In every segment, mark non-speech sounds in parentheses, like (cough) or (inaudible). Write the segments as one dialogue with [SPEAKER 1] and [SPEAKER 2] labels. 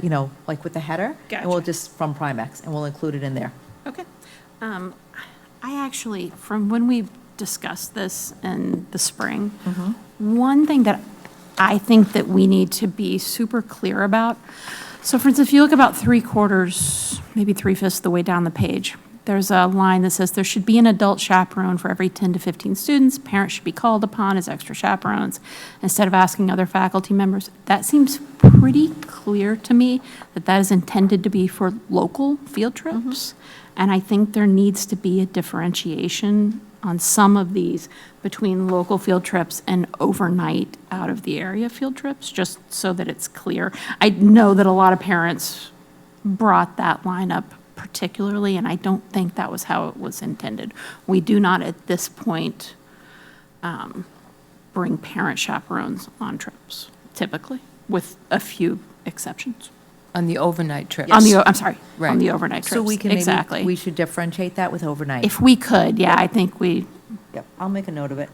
[SPEAKER 1] you know, like with the header. And we'll
[SPEAKER 2] Gotcha.
[SPEAKER 1] just, from Primex, and we'll include it in there.
[SPEAKER 2] Okay. Um, I actually, from when we discussed this in the spring, one thing that I think that we need to be super clear about, so for instance, if you look about three quarters, maybe three fifths of the way down the page, there's a line that says there should be an adult chaperone for every 10 to 15 students. Parents should be called upon as extra chaperones instead of asking other faculty members. That seems pretty clear to me that that is intended to be for local field trips. And I think there needs to be a differentiation on some of these between local field trips and overnight out of the area field trips, just so that it's clear. I know that a lot of parents brought that line up particularly, and I don't think that was how it was intended. We do not at this point um, bring parent chaperones on trips typically, with a few exceptions.
[SPEAKER 3] On the overnight trip.
[SPEAKER 2] On the, o- I'm sorry, on
[SPEAKER 3] Right.
[SPEAKER 2] the overnight
[SPEAKER 1] So we
[SPEAKER 2] trips,
[SPEAKER 1] can maybe-
[SPEAKER 2] exactly.
[SPEAKER 1] We should differentiate that with overnight.
[SPEAKER 2] If we could, yeah, I think we,
[SPEAKER 1] Yep, I'll make a note of it.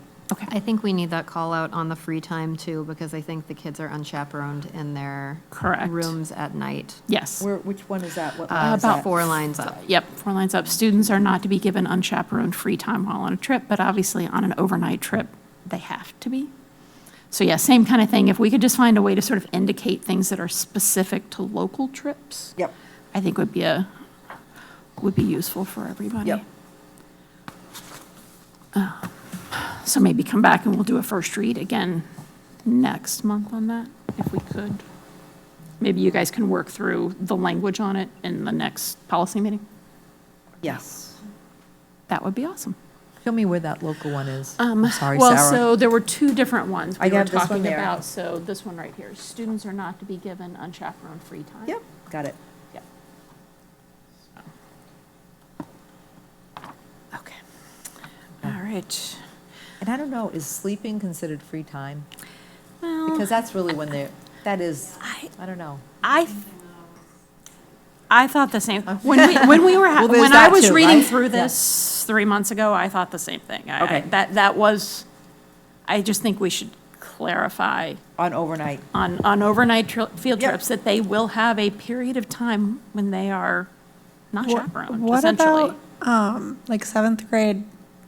[SPEAKER 4] I think we need that call out on the free time too, because I think the kids are unchaperoned in their
[SPEAKER 2] Correct.
[SPEAKER 4] rooms at night.
[SPEAKER 2] yes.
[SPEAKER 1] Where, which one is that? What line
[SPEAKER 4] Uh,
[SPEAKER 1] is that?
[SPEAKER 4] Four lines up.
[SPEAKER 2] Yep, four lines up. Students are not to be given unchaperoned free time while on a trip, but obviously on an overnight trip, they have to be. So yeah, same kind of thing. If we could just find a way to sort of indicate things that are specific to local trips.
[SPEAKER 1] Yep.
[SPEAKER 2] I think would be a, would be useful for everybody.
[SPEAKER 1] Yep.
[SPEAKER 2] Uh, So maybe come back and we'll do a first read again next month on that, if we could. Maybe you guys can work through the language on it in the next policy meeting.
[SPEAKER 1] Yes.
[SPEAKER 2] That would be awesome. Um,
[SPEAKER 1] Show me where that local one is. I'm sorry,
[SPEAKER 2] Well,
[SPEAKER 1] Sarah.
[SPEAKER 2] so there were two different ones
[SPEAKER 1] I
[SPEAKER 2] we were
[SPEAKER 1] have this one
[SPEAKER 2] talking
[SPEAKER 1] there.
[SPEAKER 2] about, so this one right here, students are not to be given unchaperoned free time.
[SPEAKER 1] Yep, got it.
[SPEAKER 2] Yep. Okay. All right.
[SPEAKER 1] And I don't know, is sleeping considered free time?
[SPEAKER 2] Well,
[SPEAKER 1] Because that's really when they're, that is,
[SPEAKER 2] I-
[SPEAKER 1] I don't know.
[SPEAKER 2] I, th- I thought
[SPEAKER 1] (laughs)
[SPEAKER 2] the same, when we, when we were, ha-
[SPEAKER 1] Well, there's
[SPEAKER 2] when I
[SPEAKER 1] that
[SPEAKER 2] was
[SPEAKER 1] too,
[SPEAKER 2] reading
[SPEAKER 1] right?
[SPEAKER 2] through
[SPEAKER 1] Yeah.
[SPEAKER 2] this three months ago, I thought the same thing. I- I-
[SPEAKER 1] Okay.
[SPEAKER 2] That, that was, I just think we should clarify
[SPEAKER 1] On overnight,
[SPEAKER 2] on, on overnight tri- field
[SPEAKER 1] Yep.
[SPEAKER 2] trips, that they will have a period of time when they are not chaperoned,
[SPEAKER 5] What
[SPEAKER 2] essentially.
[SPEAKER 5] about, um, like seventh grade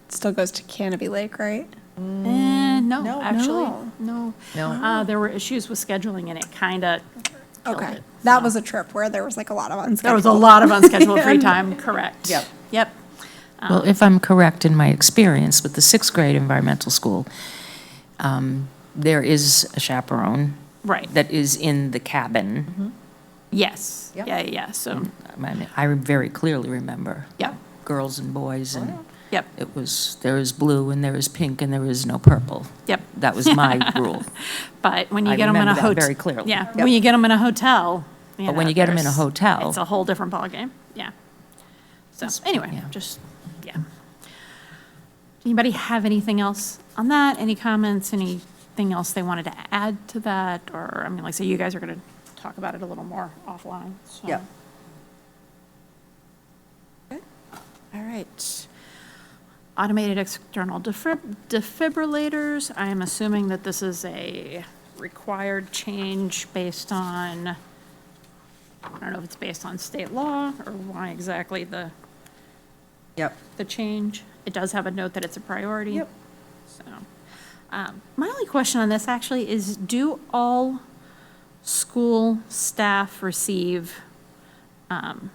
[SPEAKER 5] still goes to Canopy Lake, right?
[SPEAKER 2] Eh,
[SPEAKER 1] Mm, No.
[SPEAKER 2] no, actually, no.
[SPEAKER 1] No.
[SPEAKER 2] Uh, there were issues with scheduling and it kind of killed
[SPEAKER 5] Okay,
[SPEAKER 2] it.
[SPEAKER 5] that was a trip where there was like a lot of unscheduled.
[SPEAKER 2] There was a lot
[SPEAKER 1] (laughs)
[SPEAKER 2] of unscheduled free time, correct.
[SPEAKER 1] Yep.
[SPEAKER 2] Yep.
[SPEAKER 3] Well, if I'm correct in my experience with the sixth grade environmental school, um, there is a chaperone.
[SPEAKER 2] Right. Mm-hmm.
[SPEAKER 3] That is in the cabin.
[SPEAKER 2] Yes.
[SPEAKER 1] Yep.
[SPEAKER 2] Yeah, yeah, yeah, so,
[SPEAKER 3] I mean, I very clearly remember.
[SPEAKER 2] Yep.
[SPEAKER 3] Girls and boys and
[SPEAKER 2] yep,
[SPEAKER 3] it was, there is blue and there is pink and there is no purple.
[SPEAKER 2] yep.
[SPEAKER 3] That was
[SPEAKER 2] (laughs)
[SPEAKER 3] my rule.
[SPEAKER 2] But when you
[SPEAKER 3] I
[SPEAKER 2] get them in a
[SPEAKER 3] remember that
[SPEAKER 2] hotel.
[SPEAKER 3] very clearly.
[SPEAKER 2] Yeah,
[SPEAKER 1] Yep.
[SPEAKER 2] when you get them in a hotel.
[SPEAKER 3] But when you get 'em in a
[SPEAKER 2] there's-
[SPEAKER 3] hotel-
[SPEAKER 2] It's a whole different ballgame, yeah. So, anyway,
[SPEAKER 3] yeah.
[SPEAKER 2] just, yeah. Anybody have anything else on that? Any comments, anything else they wanted to add to that? Or, I mean, like, say, you guys are going to talk about it a little more offline, so.
[SPEAKER 1] yep.
[SPEAKER 2] All right. Automated external defib- defibrillators, I am assuming that this is a required change based on, I don't know if it's based on state law or why exactly the,
[SPEAKER 1] Yep.
[SPEAKER 2] the change. It does have a note that it's a priority.
[SPEAKER 1] Yep.
[SPEAKER 2] So, um, my only question on this actually is, do all school staff receive, um,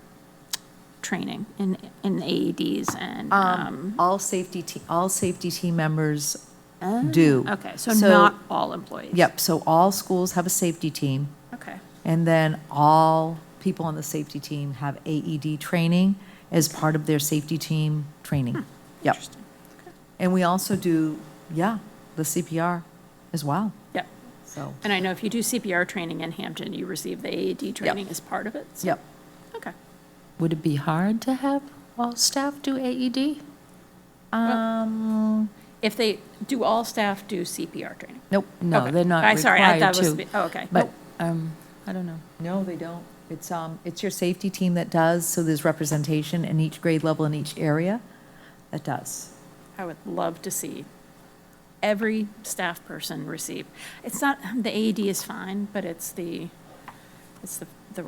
[SPEAKER 2] training in, in AEDs and, um,
[SPEAKER 1] All safety, te- all safety team members do.
[SPEAKER 2] Oh, um, okay, so not all employees?
[SPEAKER 1] Yep, so all schools have a safety team,
[SPEAKER 2] Okay,
[SPEAKER 1] and then all people on the safety team have AED training as part of their safety team training. Yep.
[SPEAKER 2] interesting.
[SPEAKER 1] And we also do, yeah, the CPR as well,
[SPEAKER 2] Yep.
[SPEAKER 1] so,
[SPEAKER 2] And I know if you do CPR training in Hampton, you receive the AED training as part of it? so-
[SPEAKER 1] yep.
[SPEAKER 2] Okay.
[SPEAKER 3] Would it be hard to have all staff do E AED?
[SPEAKER 1] Um,
[SPEAKER 2] If they, do all staff do CPR training?
[SPEAKER 1] nope,
[SPEAKER 3] No,
[SPEAKER 2] Okay.
[SPEAKER 3] they're not
[SPEAKER 2] I-
[SPEAKER 3] required to.
[SPEAKER 2] sorry, I thought it was spe- oh, okay.
[SPEAKER 3] But, um, I don't know.
[SPEAKER 1] no, they don't. It's, um, it's your safety team that does, so there's representation in each grade level in each area that does.
[SPEAKER 2] I would love to see every E staff person receive. It's not, the AED is fine, but it's the, it's the